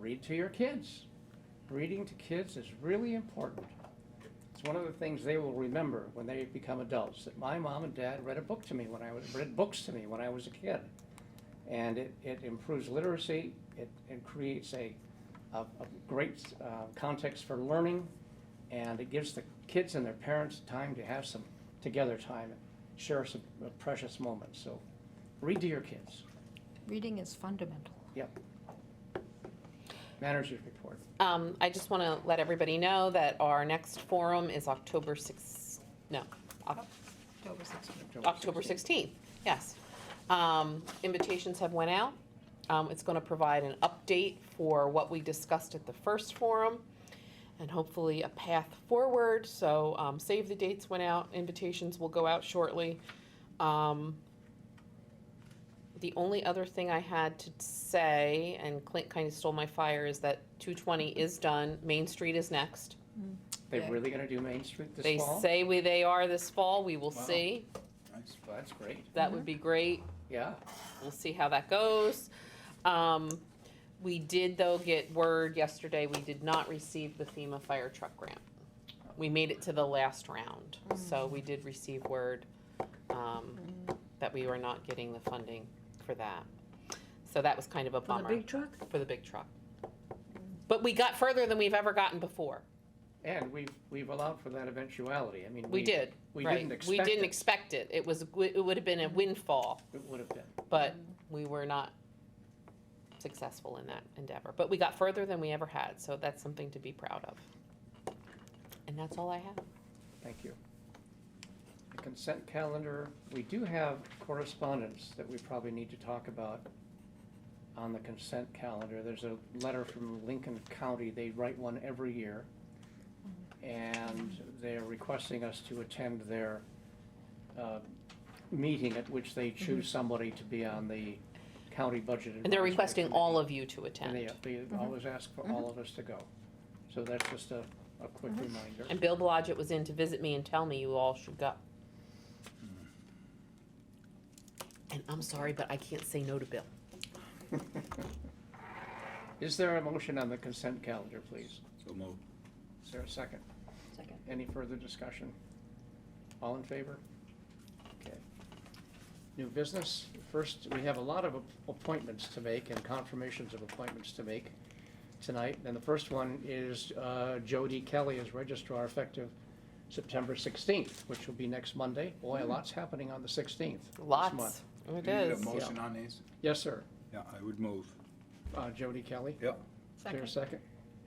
read to your kids. Reading to kids is really important. It's one of the things they will remember when they become adults, that my mom and dad read a book to me when I was, read books to me when I was a kid. And it, it improves literacy, it, it creates a, a, a great uh, context for learning, and it gives the kids and their parents time to have some together time, and share some precious moments, so read to your kids. Reading is fundamental. Manager's report. Um, I just want to let everybody know that our next forum is October six, no, Oc- October 16th. October sixteenth, yes. Um, invitations have went out. Um, it's going to provide an update for what we discussed at the first forum and hopefully a path forward. So, um, save the dates went out, invitations will go out shortly. Um, the only other thing I had to say, and Clint kind of stole my fire, is that two twenty is done, Main Street is next. They're really gonna do Main Street They this fall? say we, they are this fall, we will Wow. Mm-hmm. see. That's- That's great, That would be great. yeah. We'll see how that goes. Um, we did though get word yesterday, we did not receive the FEMA fire truck grant. We made it to the last round, so Mm. we did receive word, um, that we were not getting the funding for that. So that was kind of a For the bummer big truck? for the big truck. But we got further than we've ever gotten before. And we've, we've allowed for that eventuality, I mean. We did, We right. didn't expect We didn't it. expect it. It was, it would have been a windfall. It would have been. but we were not successful in that endeavor. But we got further than we ever had, so that's something to be proud of. And that's all I have. Thank you. The consent calendar, we do have correspondence that we probably need to talk about on the consent calendar. There's a letter from Lincoln County, they write one every year. And they're requesting us to attend their uh, meeting at which they choose somebody to be on the county budget. Mm-hmm. And they're Advisory requesting Committee. all of you to And they, attend. Mm-hmm. they always ask for all of us to go. So that's just a, a quick Mm-hmm. reminder. And Bill Blodgett was in to visit me and tell me you all should go. And I'm sorry, but I can't say no to Bill. Is there a motion on the consent calendar, please? So moved. Is there a second? Second. Any further discussion? All in favor? Okay. New business. First, we have a lot of ap- appointments to make and confirmations of appointments to make tonight. And the first one is uh, Jody Kelly as registrar effective September 16th, which will be next Monday. Boy, a lot's happening on the 16th. this month. Lots. It Do you need a is. motion on these? Yes, sir. Yeah, I would move. Uh, Jody Kelly. Yep. Is there a second?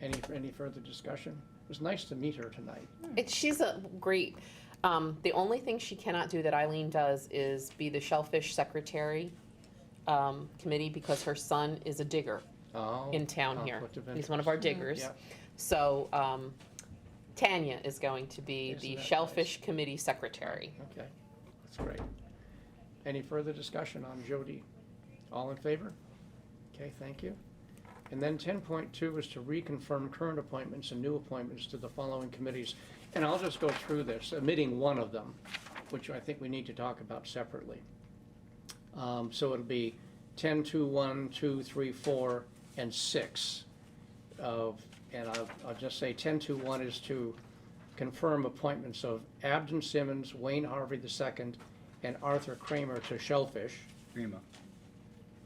Any, any further discussion? It was nice to meet her tonight. It, she's a great, um, the only thing she cannot do that Eileen does is be the shellfish secretary, um, committee because her son is a digger. Oh, in town here. conflict of He's one of our diggers. Yeah. So um, Tanya is going to be Isn't the that nice? Shellfish Committee Secretary. Okay, that's great. Any further discussion on Jody? All in favor? Okay, thank you. And then ten point two is to reconfirm current appointments and new appointments to the following committees. And I'll just go through this, omitting one of them, which I think we need to talk about separately. Um, so it'll be ten, two, one, two, three, four, and six. Of, and I'll, I'll just say ten, two, one is to confirm appointments of Abden Simmons, Wayne Harvey II, and Arthur Kramer to Shellfish. Creamer.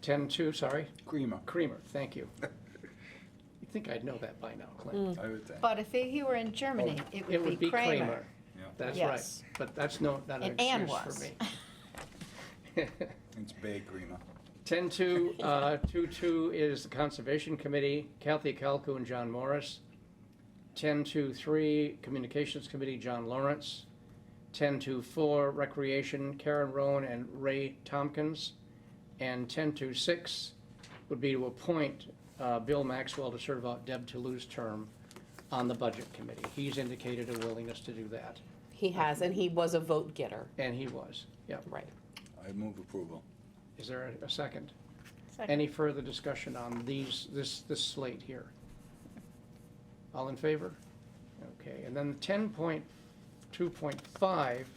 Ten two, sorry, Creamer, Kramer, thank you. You'd think I'd know that by now, Clint. I would think. But if he were in Germany, Mm, Oh, it It would be Kramer. Yeah, That's right, Yes. but that's no, not an And Ann excuse was. for me. it's Bay Creamer. Ten two, uh, two two is the Conservation Committee, Kathy Calcu and John Morris. Ten two three, Communications Committee, John Lawrence. Ten two four, Recreation, Karen Rowan and Ray Tompkins. And ten two six would be to appoint, uh, Bill Maxwell to serve out Deb Toulouse's term on the Budget Committee. He's indicated a willingness to do that, He has, and he was a vote getter. and he was, yep. Right. I move approval. Is there a- a second? Second. Any further discussion on these, this, this slate here? All in favor? Okay, and then ten point, two point five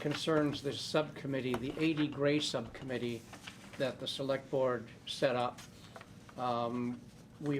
concerns this subcommittee, the eighty gray subcommittee that the select board set up um,